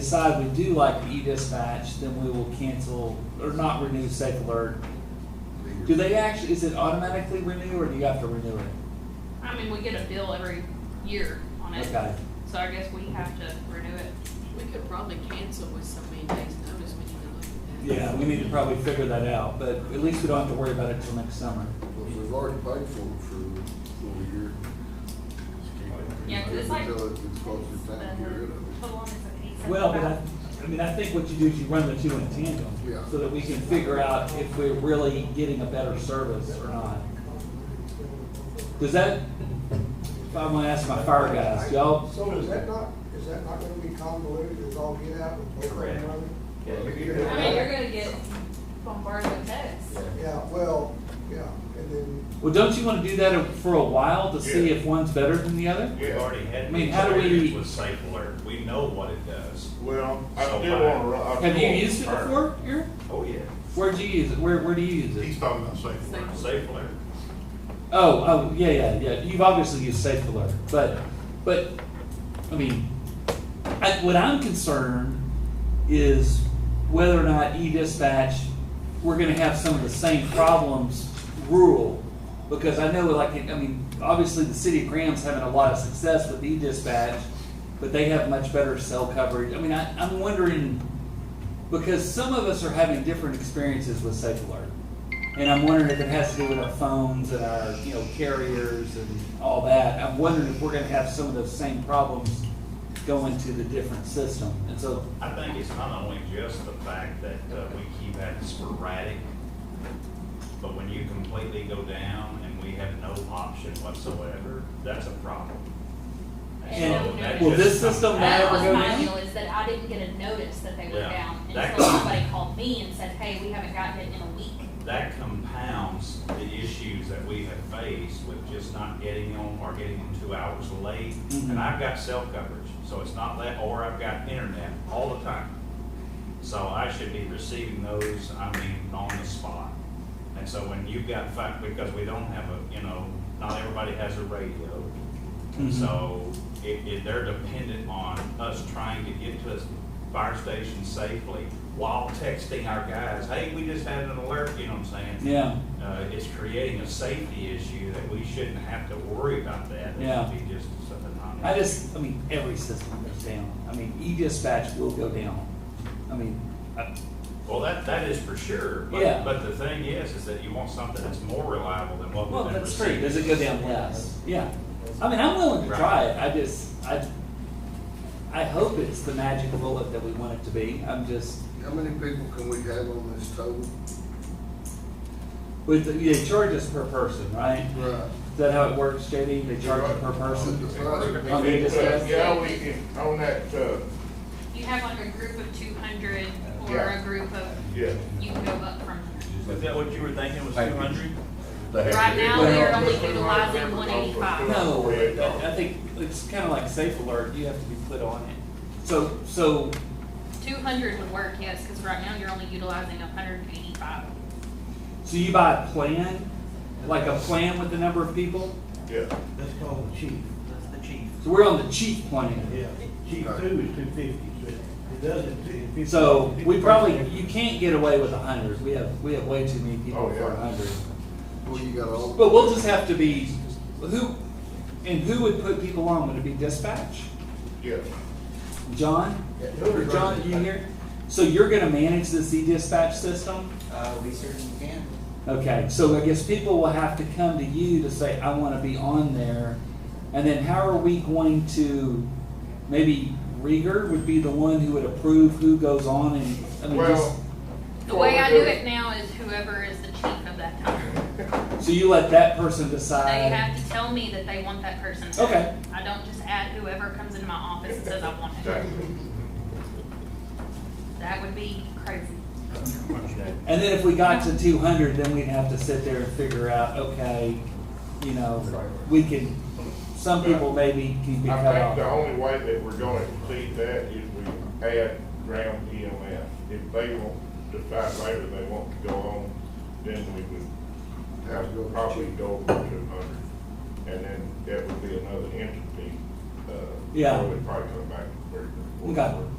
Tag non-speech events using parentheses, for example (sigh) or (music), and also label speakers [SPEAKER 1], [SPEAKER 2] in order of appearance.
[SPEAKER 1] decide we do like e-dispatch, then we will cancel or not renew Safe Alert. Do they actually, is it automatically renew or do you have to renew it?
[SPEAKER 2] I mean, we get a bill every year on it,
[SPEAKER 1] Okay.
[SPEAKER 2] so I guess we have to renew it.
[SPEAKER 3] We could probably cancel with so many days' notice, we need to look at that.
[SPEAKER 1] Yeah, we need to probably figure that out, but at least we don't have to worry about it till next summer.
[SPEAKER 4] Well, if we've already paid for it for for a year.
[SPEAKER 2] Yeah, 'cause it's like-
[SPEAKER 4] Until it's close to time to get rid of it.
[SPEAKER 5] Hold on, it's an eight seven
[SPEAKER 1] Well, but I,
[SPEAKER 5] five.
[SPEAKER 1] I mean, I think what you do is you run the two in tandem.
[SPEAKER 4] Yeah.
[SPEAKER 1] So that we can figure out if we're really getting a better service or not. Does that, if I wanna ask my fire guys, y'all,
[SPEAKER 6] So is that not, is that not gonna be convoluted, is all get out with both of
[SPEAKER 7] Correct.
[SPEAKER 6] them running?
[SPEAKER 7] Yeah, you're-
[SPEAKER 2] I
[SPEAKER 7] you're-
[SPEAKER 2] mean, you're gonna get bombarded with texts.
[SPEAKER 6] Yeah, well, yeah, and then,
[SPEAKER 1] well, don't you wanna do that for a while to see if one's better than the other?
[SPEAKER 7] We've already had.
[SPEAKER 1] I mean, how do we-
[SPEAKER 7] experience With Safe Alert, we know what it does.
[SPEAKER 8] Well, I
[SPEAKER 7] So
[SPEAKER 8] still
[SPEAKER 7] why-
[SPEAKER 8] wanna, ru- I still.
[SPEAKER 1] Have you
[SPEAKER 8] wanna
[SPEAKER 1] used it
[SPEAKER 8] return.
[SPEAKER 1] before, Eric?
[SPEAKER 7] Oh, yeah.
[SPEAKER 1] Where'd you use it? Where, where do you use
[SPEAKER 8] He's
[SPEAKER 1] it?
[SPEAKER 8] talking about safe word.
[SPEAKER 7] Safe Alert.
[SPEAKER 1] Oh, oh, yeah, yeah, yeah. You've obviously used Safe Alert, but, but, I mean, I, what I'm concerned is whether or not e-dispatch, we're gonna have some of the same problems rural. Because I know, like, I mean, obviously the city of Graham's having a lot of success with e-dispatch, but they have much better cell coverage. I mean, I, I'm wondering, because some of us are having different experiences with Safe Alert. And I'm wondering if it has to do with our phones and our, you know, carriers and all that. I'm wondering if we're gonna have some of those same problems going to the different system. And so
[SPEAKER 7] I think it's not only just the fact that uh, we keep that sporadic, but when you completely go down and we have no option whatsoever, that's a problem. And so that
[SPEAKER 1] Will this
[SPEAKER 7] just-
[SPEAKER 1] system
[SPEAKER 5] That
[SPEAKER 1] matter?
[SPEAKER 5] was
[SPEAKER 1] Never go
[SPEAKER 5] my
[SPEAKER 1] down?
[SPEAKER 5] deal, is that I didn't get a notice that they were
[SPEAKER 7] Yeah.
[SPEAKER 5] down
[SPEAKER 7] That-
[SPEAKER 5] until somebody called me and said, hey, we haven't gotten it in a week.
[SPEAKER 7] That compounds the issues that we have faced with just not getting them or getting them two hours late.
[SPEAKER 1] Mhm.
[SPEAKER 7] And I've got cell coverage, so it's not that, or I've got internet all the time. So I should be receiving those, I mean, on the spot. And so when you've got fact, because we don't have a, you know, not everybody has a radio. And
[SPEAKER 1] Mhm.
[SPEAKER 7] so it, it, they're dependent on us trying to get to a fire station safely while texting our guys, hey, we just had an alert, you know what I'm saying?
[SPEAKER 1] Yeah,
[SPEAKER 7] Uh, it's creating a safety issue that we shouldn't have to worry about that. It
[SPEAKER 1] Yeah.
[SPEAKER 7] should be just something non.
[SPEAKER 1] I just, I mean, every system goes down. I mean, e-dispatch will go down. I mean, I-
[SPEAKER 7] Well, that, that is for sure. but-
[SPEAKER 1] Yeah.
[SPEAKER 7] But the thing is, is that you want something that's more reliable than what
[SPEAKER 1] well,
[SPEAKER 7] we've been
[SPEAKER 1] that's true.
[SPEAKER 7] receiving.
[SPEAKER 1] Does it go down less? Yeah. I mean, I'm willing to try it. I just, I, I hope it's the magic bullet that we want it to be. I'm just,
[SPEAKER 4] How many people can we have on this total?
[SPEAKER 1] with, the- they charge us per person, right?
[SPEAKER 4] Right.
[SPEAKER 1] Is that how it works, JD? They charge you per person? On the
[SPEAKER 8] Yeah,
[SPEAKER 1] dispatch?
[SPEAKER 8] Yeah, we can, on that, uh,
[SPEAKER 2] You have like a group of two hundred or
[SPEAKER 8] Yeah.
[SPEAKER 2] a group of,
[SPEAKER 8] yeah.
[SPEAKER 2] you can go up from
[SPEAKER 7] Is that what you were thinking was two hundred? (laughs)
[SPEAKER 2] there. Right now, we are only
[SPEAKER 8] Well-
[SPEAKER 2] utilizing one eighty-five.
[SPEAKER 1] No, I I think it's kind of like Safe Alert. You have to be put on it. So, so
[SPEAKER 2] Two hundred would work, yes, cause right now you're only utilizing hundred and eighty-five.
[SPEAKER 1] So you buy a plan, like a plan with the number of people?
[SPEAKER 8] Yeah.
[SPEAKER 9] That's called the chief, that's the chief.
[SPEAKER 1] So we're on the cheap plan.
[SPEAKER 9] Yeah, chief two is two fifty, but it doesn't, if it's.
[SPEAKER 1] So we probably, you can't get away with a hundred. We have, we have way too many
[SPEAKER 8] Oh,
[SPEAKER 1] people
[SPEAKER 8] yeah.
[SPEAKER 1] for a hundred.
[SPEAKER 4] Well, you got all.
[SPEAKER 1] But we'll just have to be, who, and who would put people on? Would it be dispatch?
[SPEAKER 8] Yeah.
[SPEAKER 1] John?
[SPEAKER 4] Yeah.
[SPEAKER 1] John, you here? So you're gonna manage this e-dispatch system?
[SPEAKER 9] Uh, we certainly can.
[SPEAKER 1] Okay, so I guess people will have to come to you to say, I want to be on there. And then how are we going to, maybe Rieger would be the one who would approve who goes on and, I mean, just,
[SPEAKER 8] Well.
[SPEAKER 2] The way I do it now is whoever is the chief of that town.
[SPEAKER 1] so you let that person
[SPEAKER 2] They
[SPEAKER 1] decide.
[SPEAKER 2] have to tell me that they want that person.
[SPEAKER 1] Uh, Okay.
[SPEAKER 2] I don't just add whoever comes into my office and says I want it. That would be crazy.
[SPEAKER 1] And then if we got to two hundred, then we'd have to sit there and figure out, okay, you know, we can, some people maybe can be
[SPEAKER 8] I
[SPEAKER 1] cut
[SPEAKER 8] think the
[SPEAKER 1] off.
[SPEAKER 8] only way that we're gonna exceed that is we add ground EMS. If they want, decide later they want to go on, then we would have to probably go over two hundred. And then that would be another entity, uh.
[SPEAKER 1] Yeah.
[SPEAKER 8] so We'd probably come back to where.
[SPEAKER 1] Okay.